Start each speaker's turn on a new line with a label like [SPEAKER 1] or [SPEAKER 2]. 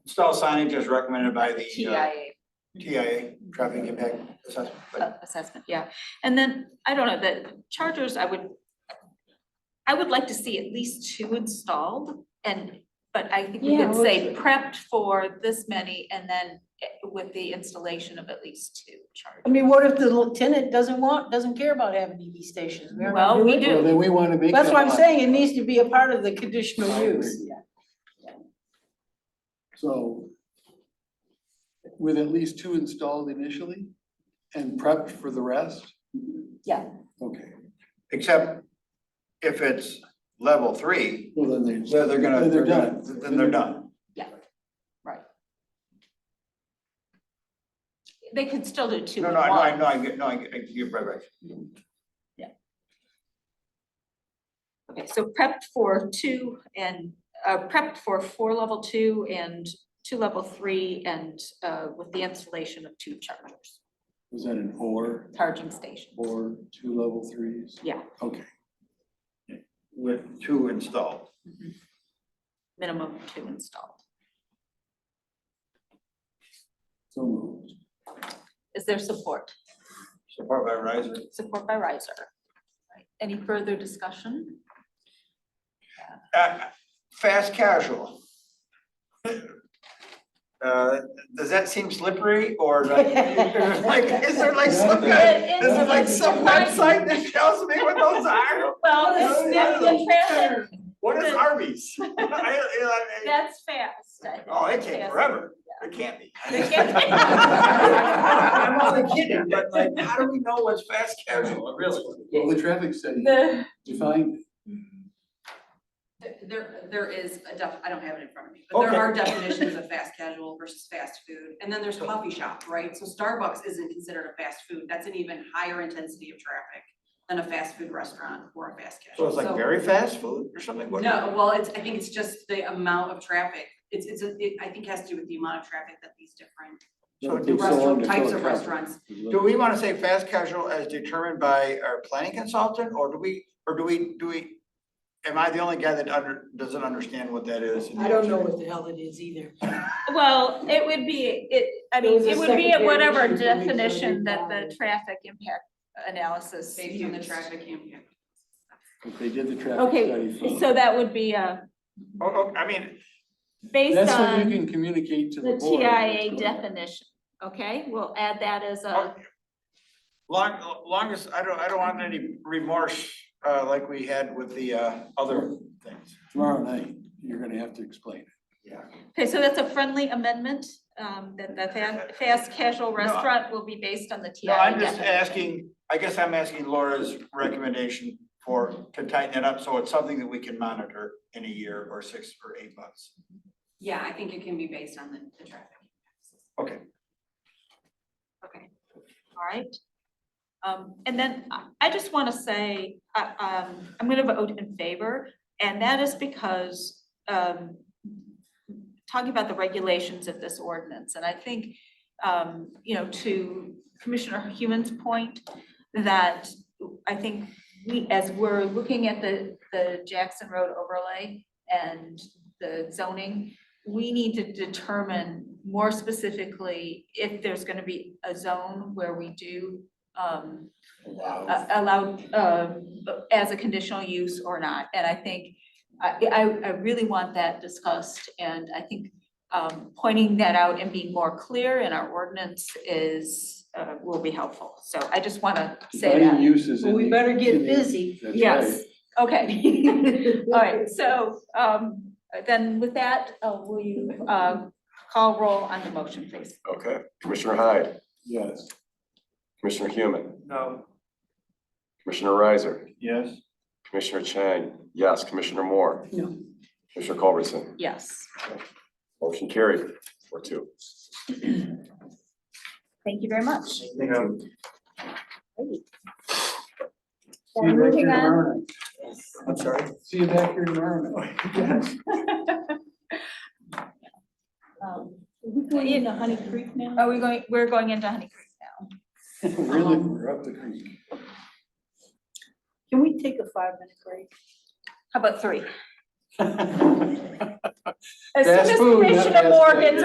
[SPEAKER 1] install signage as recommended by the uh,
[SPEAKER 2] TIA
[SPEAKER 1] TIA, traffic impact assessment. But
[SPEAKER 2] assessment, yeah. And then, I don't know, the chargers, I would, I would like to see at least two installed and, but I think we
[SPEAKER 3] Yeah,
[SPEAKER 2] could
[SPEAKER 3] we
[SPEAKER 2] say
[SPEAKER 3] should.
[SPEAKER 2] prepped for this many and then eh, with the installation of at least two
[SPEAKER 3] I
[SPEAKER 2] chargers.
[SPEAKER 3] mean, what if the little tenant doesn't want, doesn't care about having EV stations? They're not
[SPEAKER 2] Well, we
[SPEAKER 3] doing it.
[SPEAKER 2] do.
[SPEAKER 4] Well, then we wanna make.
[SPEAKER 3] That's
[SPEAKER 4] that
[SPEAKER 3] what I'm
[SPEAKER 4] lot.
[SPEAKER 3] saying, it needs to be a part of the conditional
[SPEAKER 4] I agree.
[SPEAKER 3] use.
[SPEAKER 4] So with at least two installed initially and prepped for the rest?
[SPEAKER 3] Yeah.
[SPEAKER 4] Okay,
[SPEAKER 1] Except if it's level three,
[SPEAKER 4] well, then they.
[SPEAKER 1] then they're gonna,
[SPEAKER 4] Then
[SPEAKER 1] they're
[SPEAKER 4] they're
[SPEAKER 1] gonna,
[SPEAKER 4] done.
[SPEAKER 1] then they're done.
[SPEAKER 2] They could still do two
[SPEAKER 1] No,
[SPEAKER 2] and
[SPEAKER 1] no, I
[SPEAKER 2] one.
[SPEAKER 1] know, I know, I get, no, I get, I get- you're right, right.
[SPEAKER 2] Okay, so prepped for two and, uh, prepped for four level two and two level three and, uh, with the installation of two chargers,
[SPEAKER 4] Was that an or,
[SPEAKER 2] charging stations.
[SPEAKER 4] or two level threes?
[SPEAKER 2] Yeah.
[SPEAKER 4] Okay,
[SPEAKER 1] With two installed.
[SPEAKER 2] Mhm. Minimum of two installed.
[SPEAKER 4] so moved.
[SPEAKER 2] Is there support?
[SPEAKER 1] Support by Verizon.
[SPEAKER 2] Support by riser. Right, Any further discussion?
[SPEAKER 1] Uh, fast casual. Uh, does that seem slippery or is that- like, is there like some kind,
[SPEAKER 2] It
[SPEAKER 1] this
[SPEAKER 2] is
[SPEAKER 1] is like some website that tells me what those are?
[SPEAKER 2] Well,
[SPEAKER 1] it's- it's- Oh, What is Arby's? I- I- I-
[SPEAKER 2] that's fast. I think.
[SPEAKER 1] Oh, it came forever. It can't be.
[SPEAKER 2] It can't be.
[SPEAKER 1] I'm only kidding, but like, how do we know what's fast casual, really?
[SPEAKER 4] Well, the traffic study
[SPEAKER 2] The-
[SPEAKER 4] defined it.
[SPEAKER 5] There, there is a def, I don't have it in front of me, but
[SPEAKER 1] Okay.
[SPEAKER 5] there are definitions of fast casual versus fast food, and then there's coffee shop, right? So Starbucks isn't considered a fast food, that's an even higher intensity of traffic than a fast food restaurant or a fast
[SPEAKER 1] So
[SPEAKER 5] casual,
[SPEAKER 1] it's like very fast food or something? what-
[SPEAKER 5] No, well, it's, I think it's just the amount of traffic, it's, it's, a- it, I think has to do with the amount of traffic that these different
[SPEAKER 1] So
[SPEAKER 4] It
[SPEAKER 1] do
[SPEAKER 4] takes so long
[SPEAKER 5] restaurant,
[SPEAKER 4] to
[SPEAKER 5] types
[SPEAKER 4] fill
[SPEAKER 5] of
[SPEAKER 4] traffic.
[SPEAKER 5] restaurants.
[SPEAKER 1] Do we wanna say fast casual as determined by our planning consultant, or do we, or do we, do we? Am I the only guy that under, doesn't understand what that is?
[SPEAKER 3] I don't know what the hell it is either.
[SPEAKER 2] Well, it would be, it, I
[SPEAKER 3] There
[SPEAKER 2] mean,
[SPEAKER 3] was a
[SPEAKER 2] it would be at
[SPEAKER 3] secondary
[SPEAKER 2] whatever
[SPEAKER 3] issue for me, so
[SPEAKER 2] definition
[SPEAKER 3] we
[SPEAKER 2] that the
[SPEAKER 3] followed.
[SPEAKER 2] traffic impact analysis
[SPEAKER 5] Based on the
[SPEAKER 2] used.
[SPEAKER 5] traffic impact.
[SPEAKER 4] If they did the traffic study.
[SPEAKER 2] Okay,
[SPEAKER 4] first.
[SPEAKER 2] so that would be, uh,
[SPEAKER 1] Oh, oh, I mean,
[SPEAKER 2] based
[SPEAKER 4] That's what
[SPEAKER 2] on
[SPEAKER 4] you can communicate to the
[SPEAKER 2] the
[SPEAKER 4] board.
[SPEAKER 2] TIA definition, okay? We'll add that as a,
[SPEAKER 1] long, longest, I don't, I don't want any remorse, uh, like we had with the, uh, other things.
[SPEAKER 4] Tomorrow night, you're gonna have to explain it.
[SPEAKER 1] Yeah.
[SPEAKER 2] okay, so that's a friendly amendment, um, that the fa- fast casual restaurant will be based on the TIA
[SPEAKER 1] No, I'm just
[SPEAKER 2] definition.
[SPEAKER 1] asking, I guess I'm asking Laura's recommendation for, to tighten it up, so it's something that we can monitor in a year or six or eight months.
[SPEAKER 5] Yeah, I think it can be based on the, the traffic. impacts.
[SPEAKER 1] Okay,
[SPEAKER 2] Okay, all right. Um, and then I- I just want to say, uh, um, I'm going to vote in favor, and that is because, um, talking about the regulations of this ordinance, and I think, um, you know, to Commissioner Human's point, that I think we, as we're looking at the, the Jackson Road overlay and the zoning, we need to determine more specifically if there's gonna be a zone where we do um a- allow um as a conditional use or not, and I think I I I really want that discussed, and I think um pointing that out and being more clear in our ordinance is uh will be helpful, so I just wanna say
[SPEAKER 4] Defining
[SPEAKER 2] that.
[SPEAKER 4] Uses. in
[SPEAKER 3] Well, we
[SPEAKER 4] the-
[SPEAKER 3] better get
[SPEAKER 4] in the-
[SPEAKER 3] busy.
[SPEAKER 4] That's right.
[SPEAKER 2] Yes, okay. All right, so um then with that, uh will you um call roll on the motion, please?
[SPEAKER 6] Okay, Commissioner Hyde,
[SPEAKER 4] Yes.
[SPEAKER 6] Commissioner Human,
[SPEAKER 1] no.
[SPEAKER 6] Commissioner Riser,
[SPEAKER 1] Yes.
[SPEAKER 6] Commissioner Chang, yes, Commissioner Moore.
[SPEAKER 3] No.
[SPEAKER 6] Commissioner Culbertson,
[SPEAKER 2] Yes.
[SPEAKER 6] motion carried, four two.
[SPEAKER 2] Thank you very much.
[SPEAKER 1] Yeah.
[SPEAKER 2] So moving on,
[SPEAKER 1] I'm sorry.
[SPEAKER 4] See you back here tomorrow night.
[SPEAKER 2] um,
[SPEAKER 3] We're in the Honey Creek now?
[SPEAKER 2] are we going, we're going into Honey Creek now.
[SPEAKER 4] Really, we're up the creek.
[SPEAKER 3] Can we take a five minute break?
[SPEAKER 2] How about three?
[SPEAKER 4] Fast
[SPEAKER 2] As soon as
[SPEAKER 4] food, not
[SPEAKER 2] Commissioner
[SPEAKER 4] fast food.
[SPEAKER 2] Morgan's